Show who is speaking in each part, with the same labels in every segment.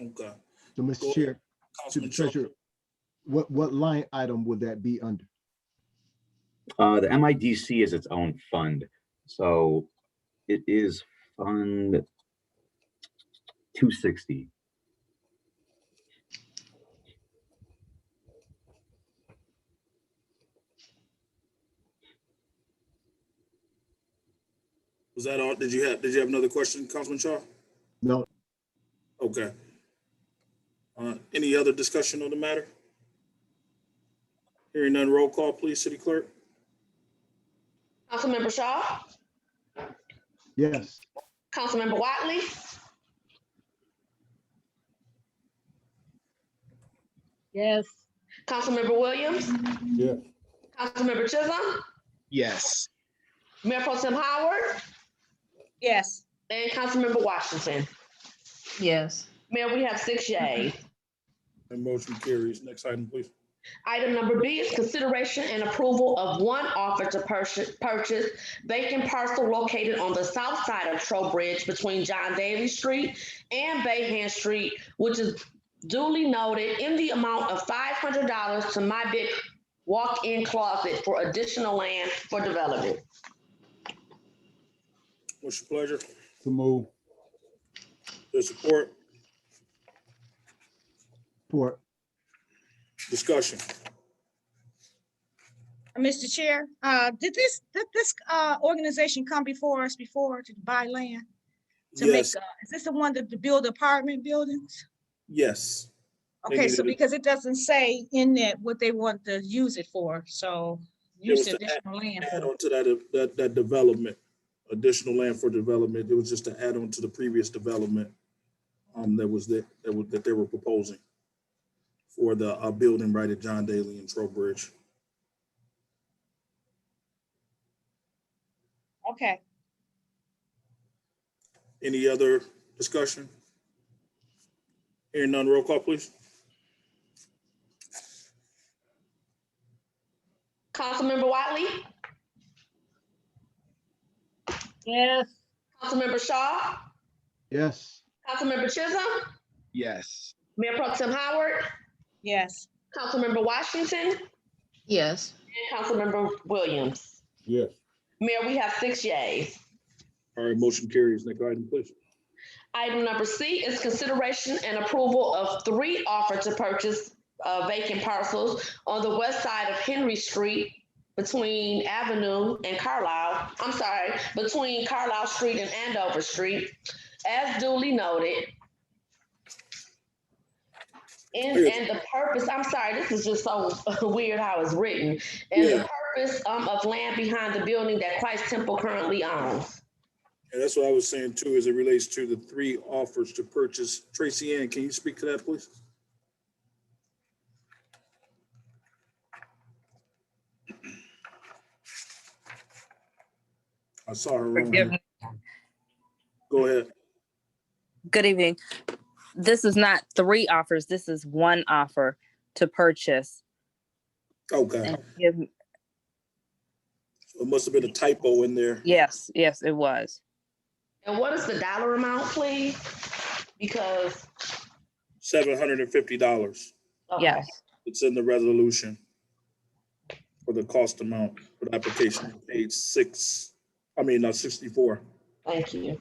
Speaker 1: Okay. Go
Speaker 2: So, Mr. Chair, to the
Speaker 1: Councilman Trump.
Speaker 2: treasurer, what, what line item would that be under?
Speaker 3: Uh, the MIDC is its own fund, so it is Fund two sixty.
Speaker 1: Was that all? Did you have, did you have another question, Councilman Shaw?
Speaker 2: No,
Speaker 1: Okay. Uh, any other discussion on the matter? Hearing none, roll call, please, City Clerk.
Speaker 4: Councilmember Shaw,
Speaker 2: yes,
Speaker 4: Councilmember Watley,
Speaker 5: Yes.
Speaker 4: Councilmember Williams.
Speaker 2: Yes.
Speaker 4: Councilmember Chisholm,
Speaker 6: Yes.
Speaker 4: Mayor Pro Tem Howard,
Speaker 5: Yes.
Speaker 4: and Councilmember Washington.
Speaker 5: Yes.
Speaker 4: Mayor, we have six yays.
Speaker 1: And motion carries. Next item, please.
Speaker 4: Item number B is consideration and approval of one offer to purchase, purchase vacant parcel located on the south side of Trowbridge between John Daly Street and Bayhand Street, which is duly noted in the amount of five hundred dollars to my big walk-in closet for additional land for development.
Speaker 1: What's your pleasure?
Speaker 7: To move,
Speaker 1: Your support,
Speaker 2: for,
Speaker 1: discussion.
Speaker 8: Mr. Chair, uh, did this, did this, uh, organization come before us before to buy land? To make, uh,
Speaker 1: Yes,
Speaker 8: is this the one that to build apartment buildings?
Speaker 1: yes. They
Speaker 8: Okay,
Speaker 1: needed
Speaker 8: so
Speaker 1: it.
Speaker 8: because it doesn't say in that what they want to use it for, so
Speaker 1: It was
Speaker 8: use
Speaker 1: to add-
Speaker 8: additional land
Speaker 1: Add
Speaker 8: for.
Speaker 1: on to that, uh, that, that development, additional land for development. It was just to add on to the previous development um, that was that, that was- that they were proposing for the, uh, building right at John Daly and Trowbridge.
Speaker 8: Okay,
Speaker 1: Any other discussion? Hearing none, roll call, please.
Speaker 4: Councilmember Wiley,
Speaker 5: Yes.
Speaker 4: Councilmember Shaw,
Speaker 2: yes,
Speaker 4: Councilmember Chisholm,
Speaker 6: Yes.
Speaker 4: Mayor Pro Tem Howard,
Speaker 8: yes,
Speaker 4: Councilmember Washington,
Speaker 5: Yes.
Speaker 4: and Councilmember Williams.
Speaker 7: yes,
Speaker 4: Mayor, we have six yays.
Speaker 1: All right, motion carries. Next item, please.
Speaker 4: Item number C is consideration and approval of three offer to purchase uh, vacant parcels on the west side of Henry Street between Avenue and Carlisle, I'm sorry, between Carlisle Street and Andover Street, as duly noted. And, and the purpose, I'm sorry, this is just so weird how it's written. And
Speaker 1: Yeah.
Speaker 4: the purpose um, of land behind the building that Christ Temple currently owns.
Speaker 1: And that's what I was saying too, as it relates to the three offers to purchase. Tracy Ann, can you speak to that, please? I saw her. wrong.
Speaker 9: Forgive me.
Speaker 1: Go ahead.
Speaker 9: Good evening. This is not three offers. This is one offer to purchase.
Speaker 1: Okay,
Speaker 9: And give-
Speaker 1: Oh, it must have been a typo in there.
Speaker 9: Yes, yes, it was.
Speaker 4: And what is the dollar amount, please? Because. oh,
Speaker 1: Seven hundred and fifty dollars.
Speaker 4: okay.
Speaker 9: Yes.
Speaker 1: It's in the resolution for the cost amount for the application, page six, I mean, uh, sixty-four.
Speaker 4: Thank you.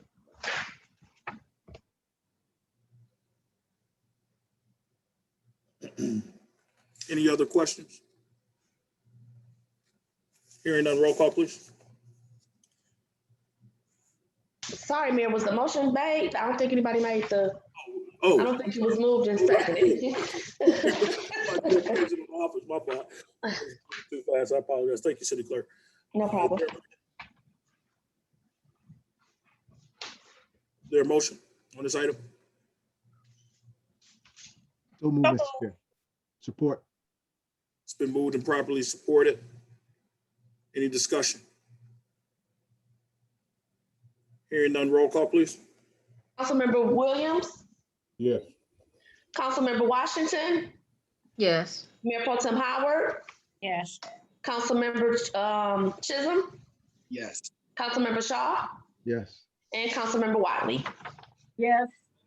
Speaker 1: Any other questions? Hearing none, roll call, please.
Speaker 4: Sorry, Mayor, was the motion made? I don't think anybody made the, I
Speaker 1: Oh.
Speaker 4: don't think it was moved and seconded.
Speaker 1: My fault. Too fast, I apologize. Thank you, City Clerk.
Speaker 4: No problem.
Speaker 1: Their motion on this item?
Speaker 2: so move, Mr. Chair. Support,
Speaker 1: It's been moved and properly supported. Any discussion? Hearing none, roll call, please.
Speaker 4: Councilmember Williams,
Speaker 7: yes,
Speaker 4: Councilmember Washington,
Speaker 5: Yes.
Speaker 4: Mayor Pro Tem Howard,
Speaker 8: yes,
Speaker 4: Councilmember um, Chisholm,
Speaker 6: Yes.
Speaker 4: Councilmember Shaw,
Speaker 2: yes,
Speaker 4: and Councilmember Wiley.
Speaker 5: Yes.